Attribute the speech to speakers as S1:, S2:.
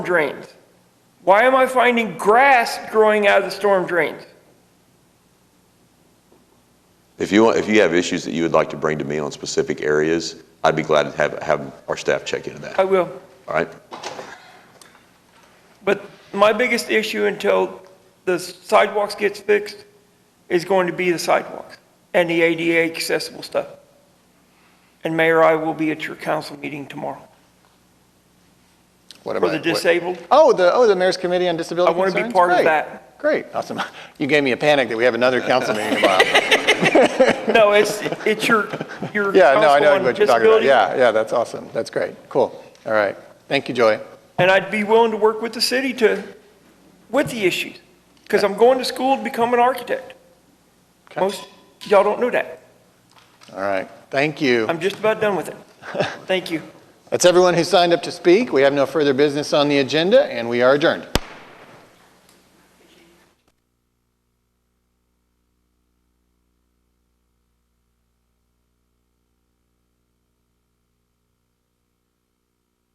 S1: drains? Why am I finding grass growing out of the storm drains?
S2: If you, want- if you have issues that you would like to bring to me on specific areas, I'd be glad to have, have our staff check into that,
S1: I will.
S2: all right?
S1: But my biggest issue until the sidewalks gets fixed is going to be the sidewalks and the ADA accessible stuff. And Mayor, I will be at your council meeting tomorrow
S3: What
S1: for
S3: about
S1: the
S3: what-
S1: disabled.
S3: Oh, the, oh, the Mayor's Committee on Disability
S1: I wanna be
S3: Concerns?
S1: part of
S3: Great.
S1: that.
S3: Great, awesome. You gave me a panic that we have another council meeting tomorrow.
S1: No, it's, it's your, your.
S3: Yeah, no, I
S1: council
S3: know
S1: on
S3: what you're talking about.
S1: disability.
S3: Yeah, yeah, that's awesome. That's great. Cool. All right. Thank you, Joy.
S1: And I'd be willing to work with the city to, with the issues, because I'm going to school to become an architect.
S3: Okay.
S1: Most, y'all don't know that.
S3: All right. Thank you.
S1: I'm just about done with it. Thank you.
S3: That's everyone who signed up to speak. We have no further business on the agenda, and we are adjourned.